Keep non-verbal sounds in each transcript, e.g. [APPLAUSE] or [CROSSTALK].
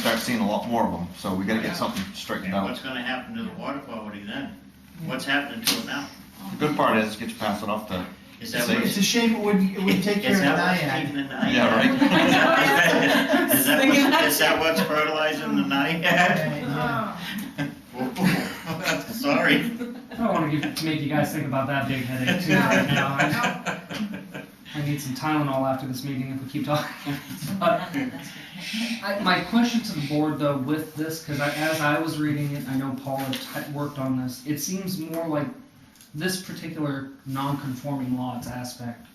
start seeing a lot more of them, so we gotta Yeah. get something straightened And out. what's gonna happen to the water quality then? What's happening to it now? The good part is, get you pass it off to, Is that Say what? It's a shame it wouldn't, it wouldn't take care Is of that what's keeping NIAID. the naiad? Yeah, right. [LAUGHS] Is that what's, is that what's fertilizing the naiad? [LAUGHS] Sorry. I don't want to give, make you guys think about that big headache too right now. I, I need some Tylenol after this meeting if we keep talking. But I, my question to the board though with this, because I, as I was reading it, I know Paul had t- worked on this. It seems more like this particular non-conforming lots aspect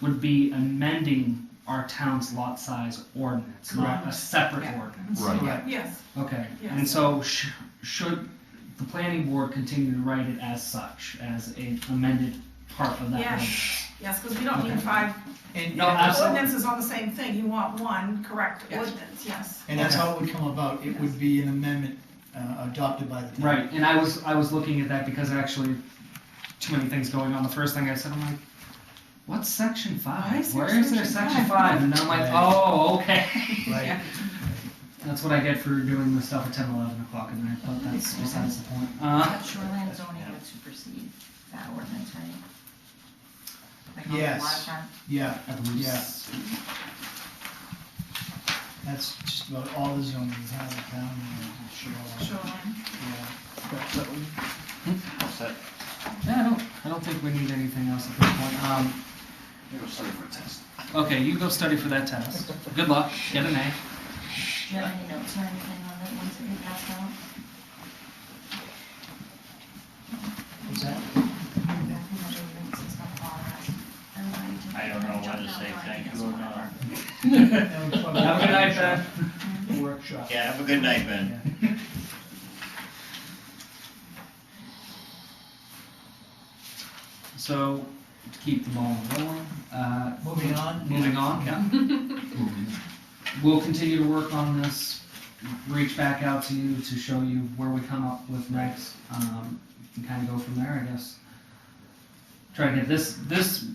would be amending our town's lot size ordinance, not a separate Yeah. ordinance. Right. Correct. Yes, Okay, and Yes. so sh- should the planning board continue to write it as such, as an amended part of that? Yes. ordinance? yes, because we don't need Okay. five And, No, and- absolutely. ordinances on the same thing, you want one correct Yes. ordinance, yes. and that's how it would come about, it would be an amendment uh, adopted by the town. Right, and I was, I was looking at that because actually, too many things going on, the first thing I said, I'm like, what's section Why five? is there Where is there section section five? five? And then I'm like, Right. oh, Right. okay. [LAUGHS] That's what I get for doing this stuff at ten, eleven o'clock at night, but that's besides the point. Uh, But shoreline zoning would supersede that ordinance, right? Like on the Yes. waterfront? Yeah, I believe Yeah. s- that's just about all the zoning, is how the town, uh, shoreline, Shoreline. yeah. Upset. Yeah, I don't, I don't think we need anything else at this point. Um, It was sort of a test. okay, you go study for that test. Good luck, get an A. Do you have any notes or anything on that once it passed out? Is that, I don't know whether to say thank you or not. that was probably. Have a good night, Ben. Workshop. Yeah, have a good night, Ben. So, to keep the ball rolling, uh, Moving on. moving on, yeah. We'll continue to work on this, reach back out to you to show you where we come up with next, um, and kind of go from there, I guess. Try to get this, this,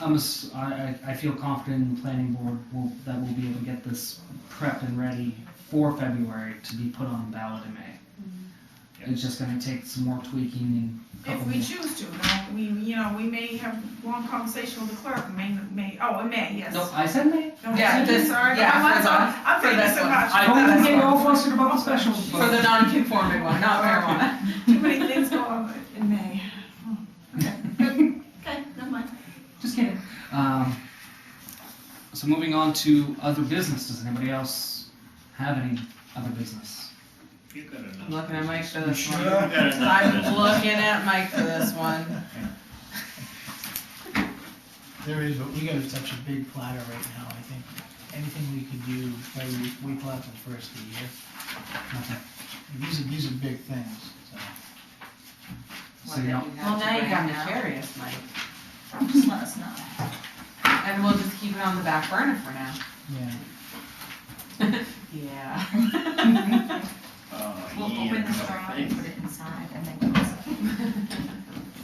I'm, ass- I, I I feel confident in the planning board will, that we'll be able to get this prepped and ready for February to be put on ballot in May. It's just gonna take some more tweaking and If couple we more. choose to, now, we, you know, we may have long conversation with the clerk, may, may, oh, in May, yes. No, I said May. No, Yeah, I'm this- Sorry, yeah, I'm, I'm for sorry, the- I'm for thinking this so one. much. I don't that's get fine. all flustered about the special. For the non-conforming one, not marijuana. Too [LAUGHS] many things go on in May. Okay, [LAUGHS] never mind. Just kidding. Um, so moving on to other business. Does anybody else have any other business? You got I'm enough. looking at Mike for this You one. got enough. I'm looking at Mike for this one. There is, but we got such a big platter right now, I think, anything we could do, maybe we, we collapse the first of the year. Okay. These are, these are big things, so. So you don't- Well, now you got me curious, Mike. Just let us know. And we'll just keep it on the back burner for now. Yeah, Yeah. [LAUGHS] Oh, We'll yeah. open the straw and put it inside and then close it. Oh,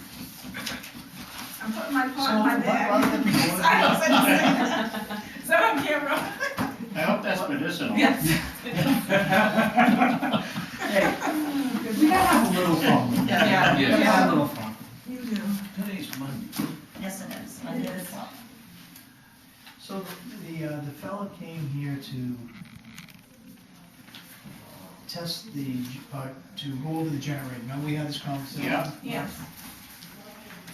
I'm putting my So, paw in my why- why don't we go on? bag. [LAUGHS] I don't say that. Is that on camera? I hope that's medicinal. [LAUGHS] We gotta have a little fun. Yeah. We gotta have a little fun. You do. today's Monday. Yes, it is. I did as well. So the, uh, the fellow came here to test the, g- uh, to go over the generator, now we had this conversation. Yeah. Yeah.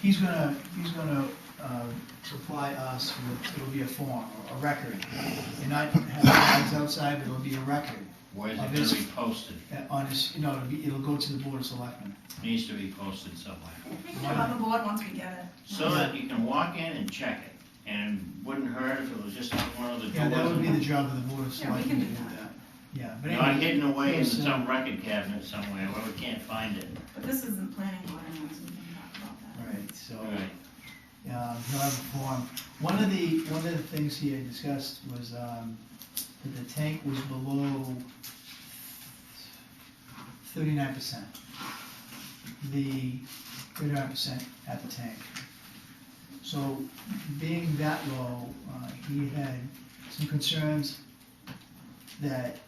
He's gonna, he's gonna, uh, supply us with, it'll be a form, a record, and not have the guys outside, but it'll be a record Where's Of it his- gonna be posted? uh, on his, you know, it'll be, it'll go to the board of selectmen. Needs to be posted somewhere. We can get on the board once we get it. So that you can walk in and check it, and wouldn't hurt if it was just on one of the doors. Yeah, that would be the job of the board of Yeah, we selectmen can to do do that. Yeah, but Not anyway, hidden away in Yes, sir. some record cabinet somewhere where we can't find it. But this isn't planning board, anyways, we can talk about that. right, so. All right. um, he'll have a form. One of the, one of the things he had discussed was um, that the tank was below thirty-nine percent. The thirty-nine percent at the tank. So being that low, uh, he had some concerns that